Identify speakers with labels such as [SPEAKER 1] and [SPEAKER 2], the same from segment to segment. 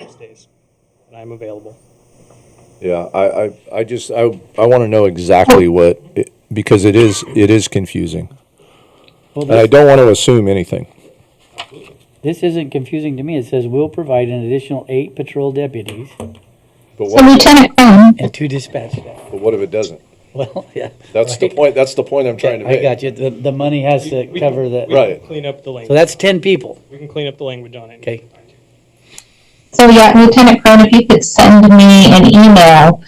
[SPEAKER 1] most days, and I'm available.
[SPEAKER 2] Yeah, I, I, I just, I, I want to know
[SPEAKER 3] Oh.
[SPEAKER 2] exactly what, it- because it is, it is confusing.
[SPEAKER 3] Well,
[SPEAKER 2] And I
[SPEAKER 3] this,
[SPEAKER 2] don't want to assume anything.
[SPEAKER 3] this isn't confusing to me. It says we will provide an additional eight patrol deputies
[SPEAKER 2] But
[SPEAKER 4] So
[SPEAKER 2] what,
[SPEAKER 4] Lieutenant Cohn,
[SPEAKER 3] and two dispatch staff.
[SPEAKER 2] but what if it doesn't?
[SPEAKER 3] Well, yeah.
[SPEAKER 2] That's the
[SPEAKER 3] right.
[SPEAKER 2] point, that's the point I'm trying to
[SPEAKER 3] I
[SPEAKER 2] make.
[SPEAKER 3] got you. The, the money has to
[SPEAKER 1] We- we can-
[SPEAKER 3] cover
[SPEAKER 1] we
[SPEAKER 3] the,
[SPEAKER 1] can
[SPEAKER 2] Right.
[SPEAKER 1] Clean up the
[SPEAKER 3] so
[SPEAKER 1] language,
[SPEAKER 3] that's ten people.
[SPEAKER 1] we can clean up the language on it.
[SPEAKER 3] Okay.
[SPEAKER 4] so yeah, Lieutenant Cohn, if you could send me an email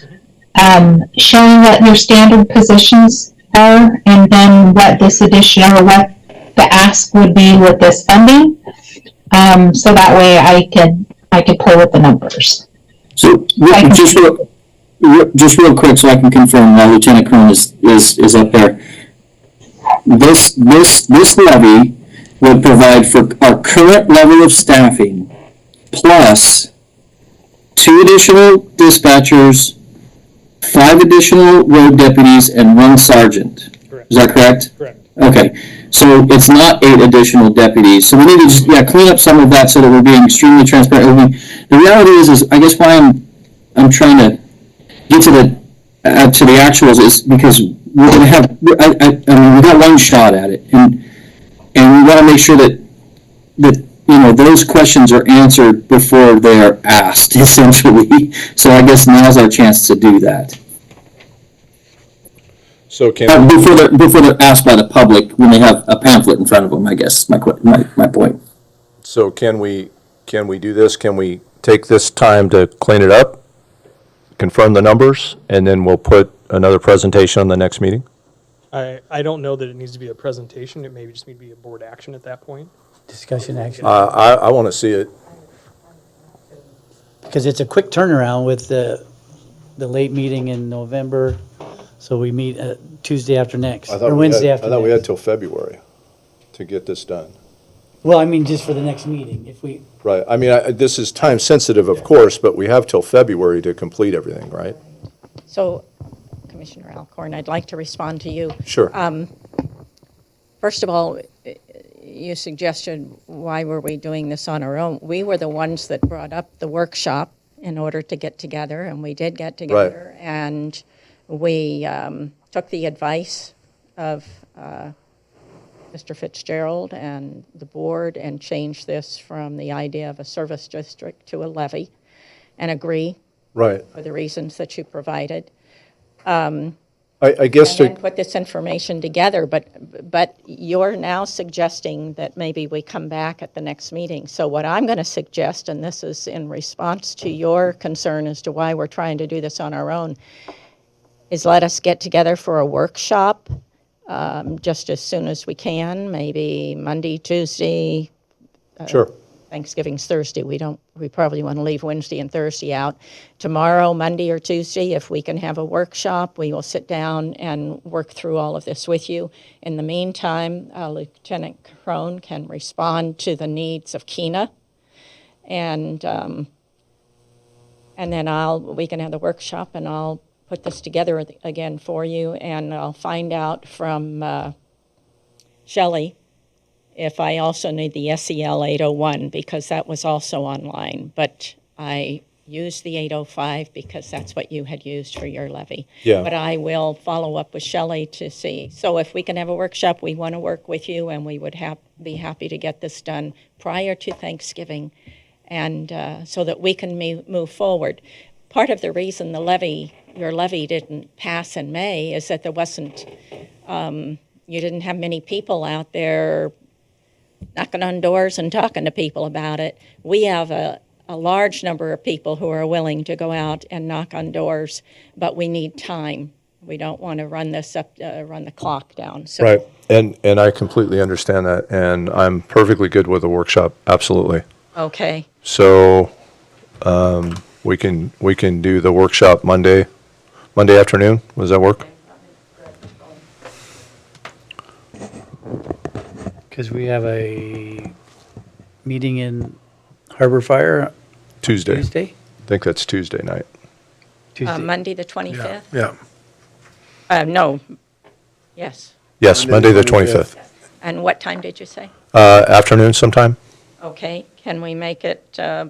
[SPEAKER 4] um, showing what your standard positions are and then what this additional, or what the ask would be with this funding. Um, so that way I could, I could play with the numbers.
[SPEAKER 5] So, re-
[SPEAKER 4] Right.
[SPEAKER 5] just real, re- just real quick, so I can confirm, while Lieutenant Kern is, is, is up there. This, this, this levy would provide for our current level of staffing plus two additional dispatchers, five additional road deputies, and one sergeant.
[SPEAKER 1] Correct.
[SPEAKER 5] Is that correct?
[SPEAKER 1] Correct.
[SPEAKER 5] Okay, so it's not eight additional deputies, so we need to, just, yeah, clean up some of that so that we're being extremely transparent. I mean, The reality is, is I guess why I'm, I'm trying to get to the, uh, to the actuals is because we're gonna have, I, I, I mean, we got one shot at it, and, and we wanna make sure that, that, you know, those questions are answered before they're asked, essentially. So I guess now's our chance to do that.
[SPEAKER 2] So can,
[SPEAKER 5] Uh, Before they're, before they're asked by the public, when they have a pamphlet in front of them, I guess, my, que- my, my point.
[SPEAKER 2] so can we, can we do this? Can we take this time to clean it up? Confirm the numbers, and then we'll put another presentation on the next meeting?
[SPEAKER 1] I, I don't know that it needs to be a presentation, it maybe just need to be a board action at that point.
[SPEAKER 3] Discussion action.
[SPEAKER 2] Uh, I, I want to see it.
[SPEAKER 3] Because it's a quick turnaround with the, the late meeting in November. So we meet uh, Tuesday after next
[SPEAKER 2] I
[SPEAKER 3] or
[SPEAKER 2] thought we had,
[SPEAKER 3] Wednesday
[SPEAKER 2] I
[SPEAKER 3] after
[SPEAKER 2] thought we had
[SPEAKER 3] next.
[SPEAKER 2] till February to get this done.
[SPEAKER 3] Well, I mean, just for the next meeting, if we,
[SPEAKER 2] Right, I mean, I, this is time sensitive, of course, but we have till February to complete everything, right?
[SPEAKER 6] So, Commissioner Alcorn, I'd like to respond to you.
[SPEAKER 2] Sure.
[SPEAKER 6] First of all, eh, you suggested why were we doing this on our own? We were the ones that brought up the workshop in order to get together, and we did get together. And we um, took the advice of uh, Mr. Fitzgerald and the board and changed this from the idea of a service district to a levy and agree
[SPEAKER 2] Right.
[SPEAKER 6] for the reasons that you provided.
[SPEAKER 2] I, I guess
[SPEAKER 6] and
[SPEAKER 2] to,
[SPEAKER 6] put this information together, but, but you're now suggesting that maybe we come back at the next meeting. So what I'm going to suggest, and this is in response to your concern as to why we're trying to do this on our own, is let us get together for a workshop um, just as soon as we can, maybe Monday, Tuesday,
[SPEAKER 2] sure,
[SPEAKER 6] Thanksgiving's Thursday. We don't, we probably want to leave Wednesday and Thursday out. Tomorrow, Monday or Tuesday, if we can have a workshop, we will sit down and work through all of this with you. In the meantime, uh, Lieutenant Crone can respond to the needs of Kena. And, um, and then I'll, we can have the workshop and I'll put this together again for you and I'll find out from, uh, Shelley if I also need the E SEL 801 because that was also online, but I used the 805 because that's what you had used for your levy.
[SPEAKER 2] Yeah.
[SPEAKER 6] But I will follow up with Shelley to see. So if we can have a workshop, we want to work with you and we would hap- be happy to get this done prior to Thanksgiving and uh, so that we can me- move forward. Part of the reason the levy, your levy didn't pass in May is that there wasn't, um, you didn't have many people out there knocking on doors and talking to people about it. We have a, a large number of people who are willing to go out and knock on doors, but we need time. We don't want to run this up, uh, run the clock down. So
[SPEAKER 2] right. And, and I completely understand that, and I'm perfectly good with a workshop, absolutely.
[SPEAKER 6] okay,
[SPEAKER 2] So, um, we can, we can do the workshop Monday, Monday afternoon, does that work?
[SPEAKER 3] because we have a meeting in Harbor Fire
[SPEAKER 2] Tuesday, I
[SPEAKER 3] Tuesday?
[SPEAKER 2] think that's Tuesday night.
[SPEAKER 6] uh,
[SPEAKER 3] Tuesday.
[SPEAKER 6] Monday the twenty fifth.
[SPEAKER 7] Yeah,
[SPEAKER 6] Uh, no, yes.
[SPEAKER 2] Yes, Monday
[SPEAKER 7] Monday the
[SPEAKER 2] the twenty-fifth,
[SPEAKER 6] And what time did you say?
[SPEAKER 2] uh, afternoon sometime?
[SPEAKER 6] Okay, can we make it uh,